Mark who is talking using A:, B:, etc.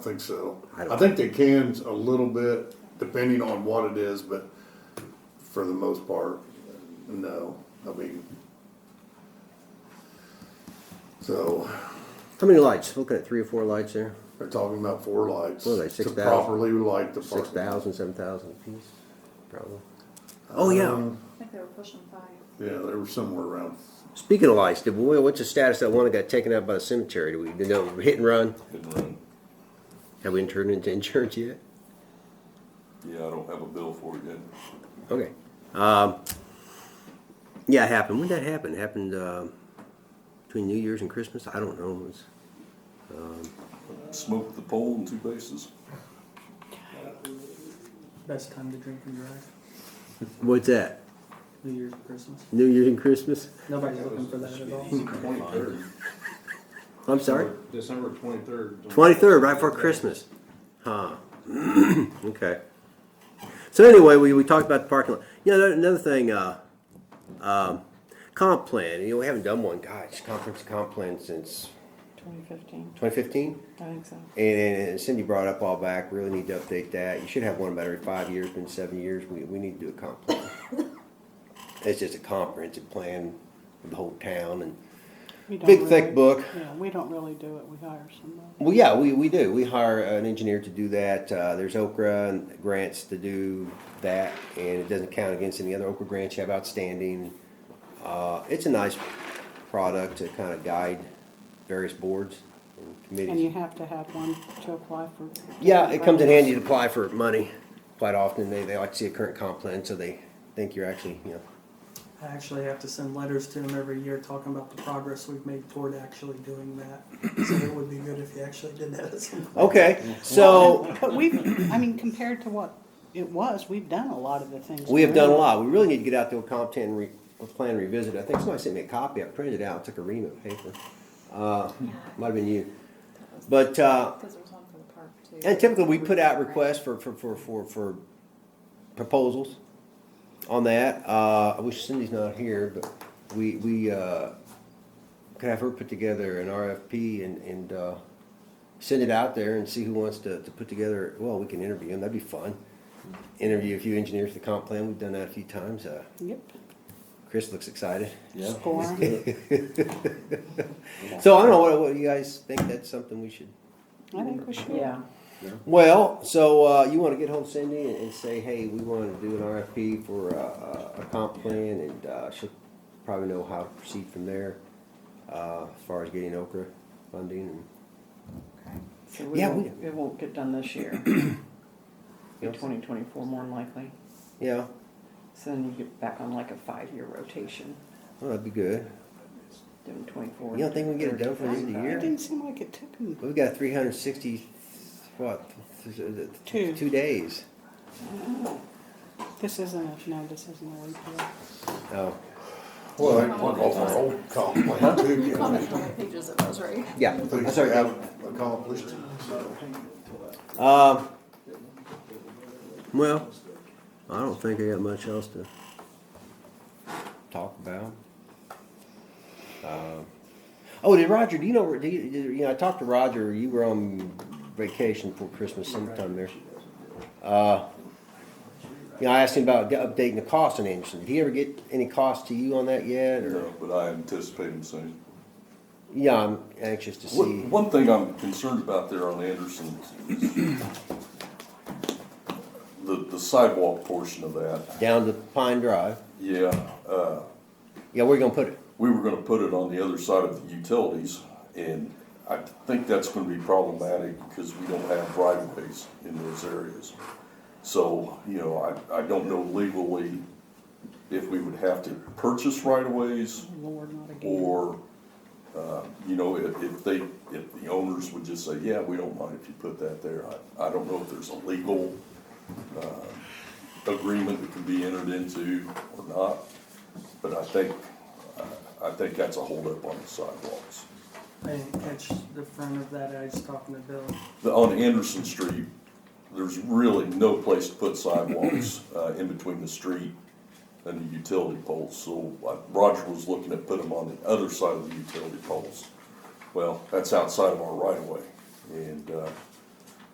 A: think so.
B: I don't-
A: I think they can a little bit, depending on what it is, but for the most part, no. I mean, so
B: How many lights? Looking at three or four lights there,
A: they're talking about four lights.
B: What are they, 6,000?
A: To properly light the
B: six
A: park.
B: thousand, seven thousand a piece, probably. Oh, yeah.
A: Um,
C: I think they were pushing five.
A: Yeah, they were somewhere around,
B: Speaking of lights, did, we- what's the status of that one that got taken out by the cemetery? Do we, did they hit and run?
D: Hit and run.
B: Have we turned into insurance yet?
D: Yeah, I don't have a bill for it yet.
B: Okay. Um, yeah, it happened. When did that happen? It happened, um, between New Year's and Christmas? I don't know. It was-
D: Smoked the pole in two bases.
E: Best time to drink and drive.
B: What's that?
E: New Year's and Christmas.
B: New Year's and Christmas?
E: Nobody's looking for that at all.
F: Twenty-third.
B: I'm sorry?
F: December twenty-third.
B: Twenty-third, right before Christmas. Huh. okay. So anyway, we, we talked about the parking lot. You know, another thing, uh, um, comp plan, you know, we haven't done one, gosh, conference comp plan since
C: Twenty fifteen,
B: twenty fifteen?
C: I think so.
B: And and Cindy brought up all back, really need to update that. You should have one about every five years, been seven years. We, we need to do a comp plan. It's just a comprehensive plan of the whole town and
G: We don't
B: big thick
G: really-
B: book.
G: Yeah, we don't really do it, we hire somebody.
B: Well, yeah, we, we do. We hire an engineer to do that. Uh, there's Okra and grants to do that, and it doesn't count against any other Okra grants you have outstanding. Uh, it's a nice product to kind of guide various boards and committees.
G: And you have to have one to apply for.
B: Yeah, it comes in handy to apply for money quite often. They, they like to see a current comp plan, so they think you're actually, you know.
E: I actually have to send letters to them every year talking about the progress we've made toward actually doing that. So it would be good if you actually did that at some point.
B: Okay, so
G: But we've, I mean, compared to what it was, we've done a lot of the things.
B: we have
G: there.
B: done a lot. We really need to get out to a comp ten re, a plan revisit. I think somebody sent me a copy. I printed it out, took a ream of paper. Uh, might have been you. But, uh,
C: Cause there was one for the park too.
B: and typically we put out requests for, for, for, for, for proposals on that. Uh, I wish Cindy's not here, but we, we, uh, could have her put together an RFP and, and, uh, send it out there and see who wants to, to put together, well, we can interview them, that'd be fun. Interview a few engineers for the comp plan, we've done that a few times, uh,
G: Yep,
B: Chris looks excited.
G: score.
B: So I don't know, what, what do you guys think that's something we should?
G: I think we should. Yeah.
B: Well, so uh, you want to get hold of Cindy and, and say, hey, we want to do an RFP for uh, a comp plan, and uh, she'll probably know how to proceed from there uh, as far as getting Okra funding. And,
H: So we
B: Yeah,
H: won't, it won't get done this year. Be
B: Yes.
H: twenty twenty-four more than likely.
B: yeah,
H: So then you get back on like a five-year rotation,
B: well, oh, that'd be good.
H: doing twenty-four.
B: You don't think we can get it done for the end of the
G: It
B: year?
G: didn't seem like it took them,
B: We've got 360, what, th- th- th-
G: Two.
B: two days.
G: this isn't, a no, this isn't a repeal.
B: Oh,
A: well, they took off our old comp plan too. you
C: How many
A: know.
C: pages it was, right?
B: yeah.
A: Things
B: That's
A: we
B: all right.
A: haven't accomplished, so.
B: Um, well, I don't think I got much else to talk about. Um, oh, did Roger? Do you know? Do you, did- you know? I talked to Roger. You were on vacation for Christmas sometime there. Uh, you know, I asked him about g- updating the cost on Anderson. Did he ever get any cost to you on that yet? Or
D: No, But I anticipate them soon.
B: yeah, I'm anxious to see.
D: One, one thing I'm concerned about there on Anderson is the, the sidewalk portion of that.
B: Down to Pine Drive.
D: Yeah, uh,
B: Yeah, where you gonna put it?
D: we were gonna put it on the other side of the utilities, and I think that's gonna be problematic because we don't have right of ways in those areas. So, you know, I, I don't know legally if we would have to purchase right of ways
G: Lord, not again.
D: or, uh, you know, if, if they, if the owners would just say, yeah, we don't mind if you put that there. I, I don't know if there's a legal, uh, agreement that can be entered into or not, but I think, I, I think that's a holdup on the sidewalks.
E: I didn't catch the front of that. I was talking to Bill.
D: The, on Anderson Street, there's really no place to put sidewalks, uh, in between the street and the utility poles, so like Roger was looking at putting them on the other side of the utility poles. Well, that's outside of our right of way, and, uh,